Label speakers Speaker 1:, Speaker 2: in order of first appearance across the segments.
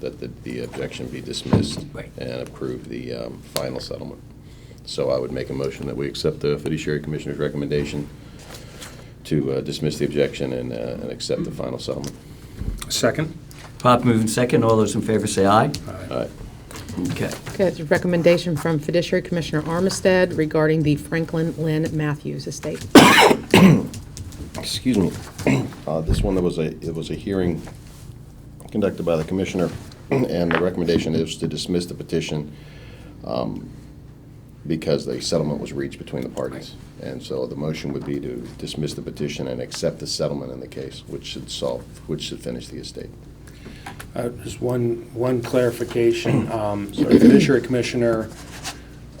Speaker 1: that the- the objection be dismissed
Speaker 2: Right.
Speaker 1: and approve the um, final settlement. So I would make a motion that we accept the fiduciary commissioner's recommendation to uh, dismiss the objection and, uh, and accept the final settlement.
Speaker 3: Second?
Speaker 2: Pop moving second. All those in favor say aye.
Speaker 1: All right.
Speaker 2: Okay.
Speaker 4: Okay, it's a recommendation from Fiduciary Commissioner Armistead regarding the Franklin Lynn Matthews estate.
Speaker 1: excuse me, Uh, this one, there was a, it was a hearing conducted by the commissioner, and the recommendation is to dismiss the petition um, because the settlement was reached between the parties. And so the motion would be to dismiss the petition and accept the settlement in the case, which should solve, which should finish the estate.
Speaker 3: Uh, Just one, one clarification. Um, so The Fishery Commissioner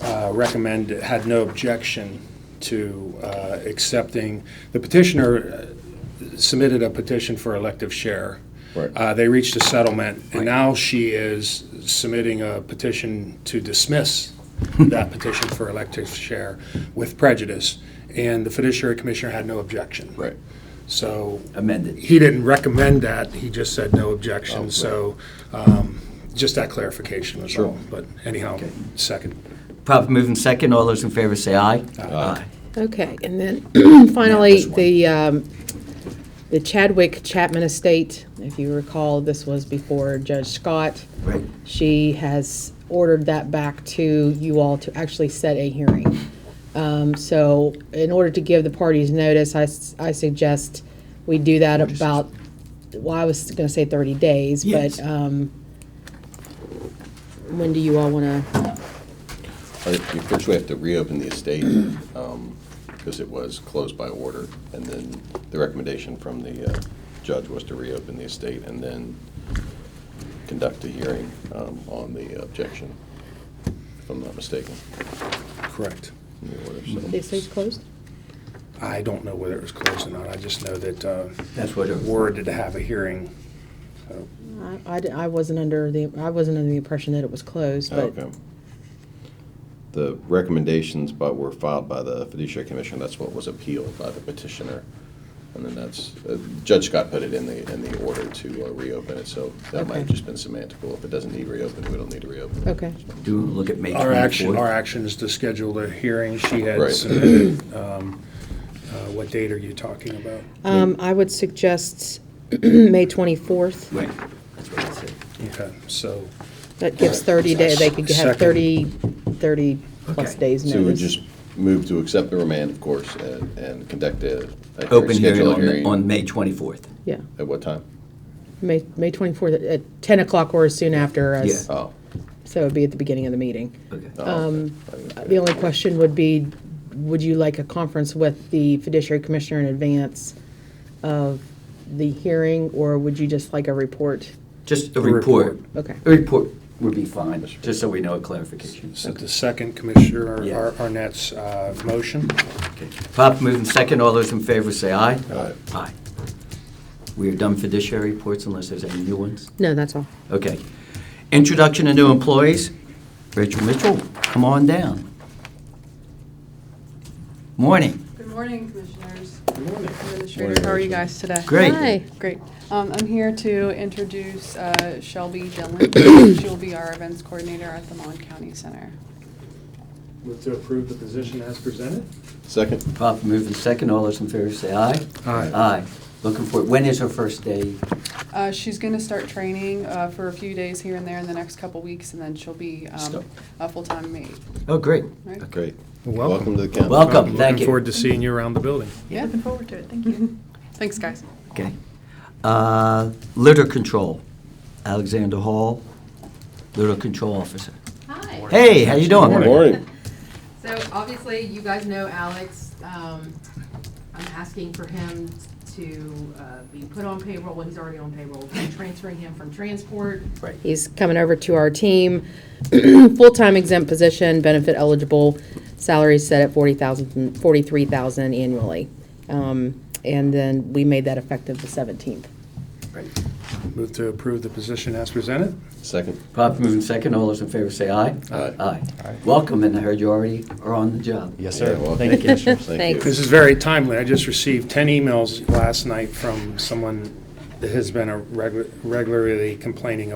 Speaker 3: uh, recommended, had no objection to uh, accepting, the petitioner uh, submitted a petition for elective share.
Speaker 1: Right.
Speaker 3: Uh, They reached a settlement, and now she is submitting a petition to dismiss that petition for elective share with prejudice, and the Fiduciary Commissioner had no objection. So
Speaker 2: Amended.
Speaker 3: he didn't recommend that, he just said no
Speaker 2: Oh,
Speaker 3: objection, so um, just that clarification was all. But anyhow,
Speaker 2: Okay.
Speaker 3: second.
Speaker 2: Pop moving second. All those in favor say aye. Aye.
Speaker 4: Okay, and then finally,
Speaker 2: this one.
Speaker 4: the, um, the Chadwick Chapman estate, if you recall, this was before Judge Scott.
Speaker 2: Right.
Speaker 4: She has ordered that back to you all to actually set a hearing. Um, So in order to give the parties notice, I, s- I suggest we do that about, well, I was going to say 30 days,
Speaker 2: Yes.
Speaker 4: but um, when do you all want to?
Speaker 1: Uh, First, we have to reopen the estate um, because it was closed by order, and then the recommendation from the uh, judge was to reopen the estate and then conduct a hearing um, on the objection, if I'm not mistaken.
Speaker 3: Correct.
Speaker 1: in the order, so.
Speaker 4: The estate's closed?
Speaker 3: I don't know whether it was closed or not, I just know that uh,
Speaker 2: That's what it was.
Speaker 3: Ward did have a hearing.
Speaker 4: I- I, di- I wasn't under the, I wasn't under the impression that it was closed, but,
Speaker 1: Okay. The recommendations but were filed by the fiduciary commission, that's what was appealed by the petitioner. And then that's, uh, Judge Scott put it in the, in the order to uh, reopen it, so that might have
Speaker 4: Okay.
Speaker 1: just been semantical. If it doesn't need reopened, we don't need to reopen it.
Speaker 4: okay.
Speaker 2: Do look at May
Speaker 3: Our action, our
Speaker 2: 24th.
Speaker 3: action is to schedule the hearing, she had
Speaker 1: Right.
Speaker 3: submitted, um, uh, what date are you talking about?
Speaker 4: Um, I would suggest May 24th.
Speaker 2: Right. That's what I said.
Speaker 3: Okay, so,
Speaker 4: That gives 30 days, they could have
Speaker 3: Second.
Speaker 4: 30, 30 plus
Speaker 2: Okay.
Speaker 4: days
Speaker 1: So we
Speaker 4: notice.
Speaker 1: just move to accept the remand, of course, and, and conduct a. a
Speaker 2: Open hearing
Speaker 1: schedule a
Speaker 2: on, the- on May 24th.
Speaker 4: Yeah,
Speaker 1: At what time?
Speaker 4: May, May 24th at 10 o'clock or soon after, as-
Speaker 2: Yeah.
Speaker 1: Oh.
Speaker 4: so it'd be at the beginning of the meeting.
Speaker 2: Okay.
Speaker 1: oh,
Speaker 4: Um,
Speaker 1: okay.
Speaker 4: The only question would be, would you like a conference with the fiduciary commissioner in advance of the hearing, or would you just like a report?
Speaker 2: Just a report.
Speaker 4: Okay.
Speaker 2: A report would be fine, just so we know a clarification.
Speaker 3: so the second Commissioner
Speaker 2: Yeah.
Speaker 3: Ar- Arnett's uh, motion.
Speaker 2: Okay. Pop moving second. All those in favor say aye. Aye. Aye. We are done fiduciary reports unless there's any new ones.
Speaker 4: No, that's all.
Speaker 2: Okay. Introduction to new employees. Rachel Mitchell, come on down. Morning.
Speaker 5: Good morning, Commissioners. Good morning. Administrator, how are you guys today?
Speaker 2: Great.
Speaker 4: Hi.
Speaker 5: Great. Um, I'm here to introduce uh, Shelby Dillon. She'll be our events coordinator at the Mon County Center.
Speaker 3: Move to approve the position as presented?
Speaker 1: Second,
Speaker 2: Pop moving second. All those in favor say aye.
Speaker 3: Aye.
Speaker 2: Aye. Looking for, when is her first day?
Speaker 5: Uh, She's going to start training uh, for a few days here and there in the next couple weeks, and then she'll be um,
Speaker 2: Stop.
Speaker 5: a full-time mate.
Speaker 2: Oh, great.
Speaker 5: Right?
Speaker 1: great.
Speaker 3: Welcome.
Speaker 1: Welcome to the county.
Speaker 2: Welcome. thank you.
Speaker 3: Uh, Looking forward to seeing you around the building.
Speaker 5: Yeah, looking forward to it. Thank you. Thanks, guys.
Speaker 2: Okay. Uh, Litter control. Alexander Hall, litter control officer.
Speaker 6: Hi.
Speaker 2: Hey, how you doing?
Speaker 1: Good morning.
Speaker 6: So obviously, you guys know Alex. Um, I'm asking for him to uh, be put on payroll. Well, he's already on payroll. I'm transferring him from transport.
Speaker 2: Right.
Speaker 4: He's coming over to our team. Full-time exempt position, benefit eligible, salary set at 40,000, 43,000 annually. Um, And then we made that effective the 17th.
Speaker 3: Move to approve the position as presented?
Speaker 1: Second,
Speaker 2: Pop moving second. All those in favor say aye.
Speaker 1: Aye.
Speaker 2: Aye. Welcome, and I heard you already are on the job.
Speaker 7: Yes,
Speaker 1: Yeah,
Speaker 7: sir.
Speaker 1: well,
Speaker 7: Thank you,
Speaker 1: thank you.
Speaker 7: Commissioner.
Speaker 1: thank you.
Speaker 3: This is very timely. I just received 10 emails last night from someone that has been a regu- regularly complaining